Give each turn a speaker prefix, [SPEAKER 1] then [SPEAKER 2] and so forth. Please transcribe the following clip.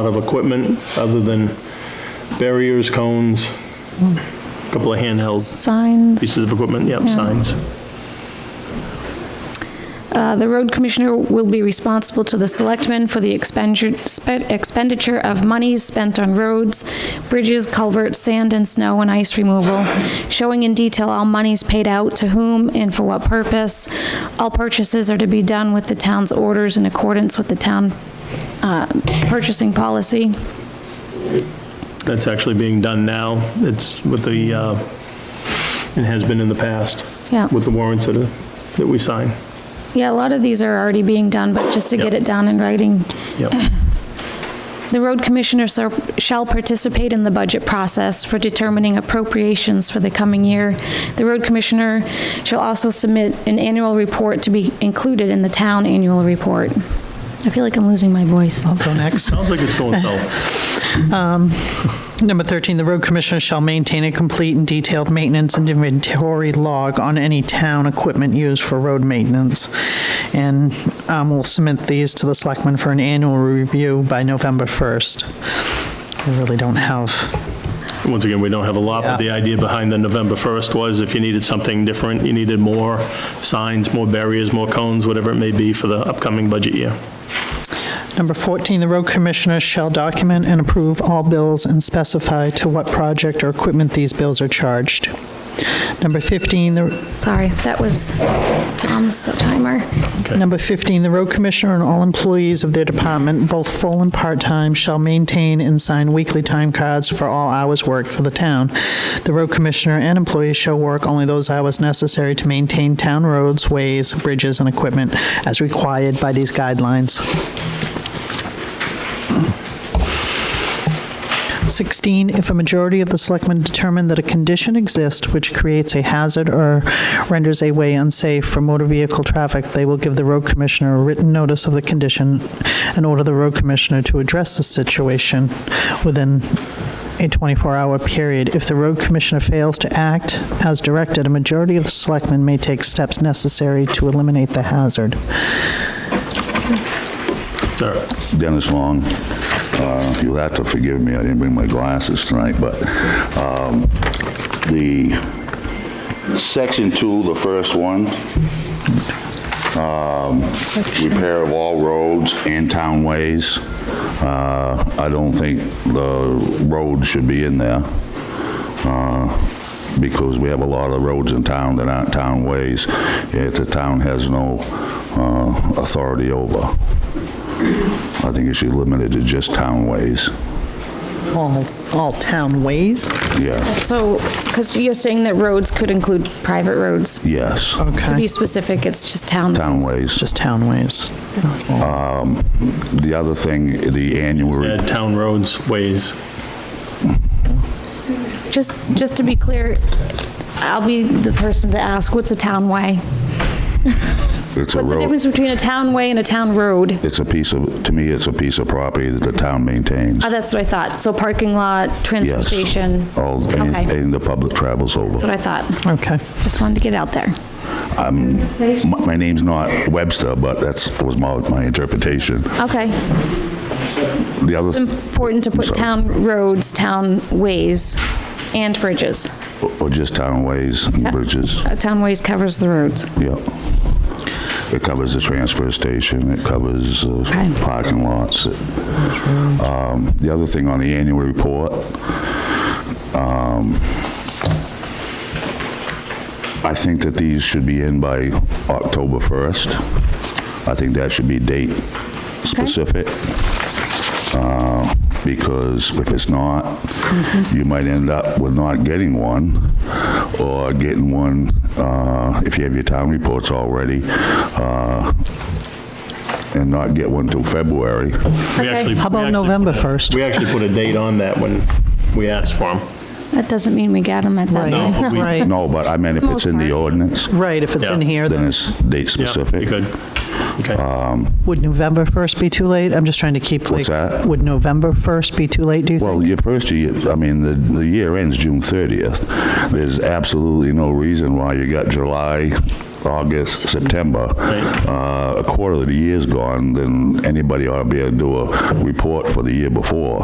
[SPEAKER 1] lot of equipment other than barriers, cones, a couple of handheld
[SPEAKER 2] Signs.
[SPEAKER 1] pieces of equipment, yep, signs.
[SPEAKER 2] Uh, The road commissioner will be responsible to the selectmen for the expenditure- spe- expenditure of monies spent on roads, bridges, culverts, sand and snow and ice removal, showing in detail all monies paid out to whom and for what purpose. All purchases are to be done with the town's orders in accordance with the town uh, purchasing policy.
[SPEAKER 1] That's actually being done now. It's with the, uh, and has been in the past.
[SPEAKER 2] Yeah.
[SPEAKER 1] With the warrants that, are- that we sign.
[SPEAKER 2] Yeah, a lot of these are already being done, but just to get
[SPEAKER 1] Yep.
[SPEAKER 2] it down in writing,
[SPEAKER 1] Yep,
[SPEAKER 2] The road commissioner ser- shall participate in the budget process for determining appropriations for the coming year. The road commissioner shall also submit an annual report to be included in the town annual report. I feel like I'm losing my voice.
[SPEAKER 3] I'll go next.
[SPEAKER 1] sounds like it's going south.
[SPEAKER 3] Number 13, the road commissioner shall maintain a complete and detailed maintenance and inventory log on any town equipment used for road maintenance. And um, we'll submit these to the selectmen for an annual review by November 1st. We really don't have,
[SPEAKER 1] Once again, we don't have a lot, but the idea behind the November 1st was if you needed something different, you needed more signs, more barriers, more cones, whatever it may be for the upcoming budget year.
[SPEAKER 3] number 14, the road commissioner shall document and approve all bills and specify to what project or equipment these bills are charged. Number 15, the
[SPEAKER 2] Sorry, that was Tom's timer.
[SPEAKER 3] Number 15, the road commissioner and all employees of their department, both full and part-time, shall maintain and sign weekly time cards for all hours worked for the town. The road commissioner and employees shall work only those hours necessary to maintain town roads, ways, bridges, and equipment as required by these guidelines. 16, if a majority of the selectmen determine that a condition exists which creates a hazard or renders a way unsafe for motor vehicle traffic, they will give the road commissioner a written notice of the condition and order the road commissioner to address the situation within a 24-hour period. If the road commissioner fails to act as directed, a majority of the selectmen may take steps necessary to eliminate the hazard.
[SPEAKER 1] Sir,
[SPEAKER 4] Dennis Long. Uh, You'll have to forgive me, I didn't bring my glasses tonight, but um, the section two, the first one, um, repair of all roads and townways, uh, I don't think the road should be in there uh, because we have a lot of roads in town that aren't townways, yet the town has no uh, authority over. I think it should be limited to just townways.
[SPEAKER 3] All, all town ways?
[SPEAKER 4] Yeah,
[SPEAKER 2] So, because you're saying that roads could include private roads.
[SPEAKER 4] yes,
[SPEAKER 2] To be
[SPEAKER 3] Okay,
[SPEAKER 2] specific, it's just town.
[SPEAKER 4] townways.
[SPEAKER 3] just town ways.
[SPEAKER 4] The other thing, the annual, re-
[SPEAKER 1] add town roads, ways.
[SPEAKER 2] Just, just to be clear, I'll be the person to ask, what's a townway?
[SPEAKER 4] it's a
[SPEAKER 2] What's the
[SPEAKER 4] road,
[SPEAKER 2] difference between a townway and a town road?
[SPEAKER 4] it's a piece of, to me, it's a piece of property that the town maintains.
[SPEAKER 2] Oh, that's what I thought. So parking lot, transfer
[SPEAKER 4] Yes.
[SPEAKER 2] station.
[SPEAKER 4] All, and
[SPEAKER 2] Okay.
[SPEAKER 4] and the public travels
[SPEAKER 2] That's what
[SPEAKER 4] over.
[SPEAKER 2] I thought.
[SPEAKER 3] Okay.
[SPEAKER 2] Just wanted to get out there.
[SPEAKER 4] My my name's not Webster, but that's, was my, my interpretation.
[SPEAKER 2] Okay.
[SPEAKER 4] The other, th-
[SPEAKER 2] Important to put
[SPEAKER 4] Sorry.
[SPEAKER 2] town roads, town ways, and bridges.
[SPEAKER 4] or just townways and bridges,
[SPEAKER 2] Uh, Town ways covers the roads.
[SPEAKER 4] yeah. It covers the transfer station, it covers uh,
[SPEAKER 2] Okay.
[SPEAKER 4] parking lots. it- Um, The other thing on the annual report, um, I think that these should be in by October 1st. I think that should be date specific. uh, Because if it's not, you might end up with not getting one or getting one, uh, if you have your town reports already, uh, and not get one till February.
[SPEAKER 1] We actually-
[SPEAKER 3] How about
[SPEAKER 1] we actually
[SPEAKER 3] November
[SPEAKER 1] put a-
[SPEAKER 3] 1st?
[SPEAKER 1] We actually put a date on that when we asked for them.
[SPEAKER 2] That doesn't mean we got them at that
[SPEAKER 3] Right.
[SPEAKER 2] time.
[SPEAKER 1] No, but we-
[SPEAKER 3] Right,
[SPEAKER 4] No, but I meant if it's in the ordinance,
[SPEAKER 3] right, if it's in
[SPEAKER 1] Yeah.
[SPEAKER 3] here, then
[SPEAKER 4] then it's date
[SPEAKER 1] Yeah,
[SPEAKER 4] specific.
[SPEAKER 1] you could. Okay.
[SPEAKER 3] Would November 1st be too late? I'm just trying to keep like...
[SPEAKER 4] What's that?
[SPEAKER 3] Would November 1st be too late, do you
[SPEAKER 4] Well,
[SPEAKER 3] think?
[SPEAKER 4] your first year, I mean, the, the year ends June 30th. There's absolutely no reason why you got July August, September,
[SPEAKER 1] Right.
[SPEAKER 4] uh, a quarter of the year's gone, then anybody ought to be able to do a report for the year before.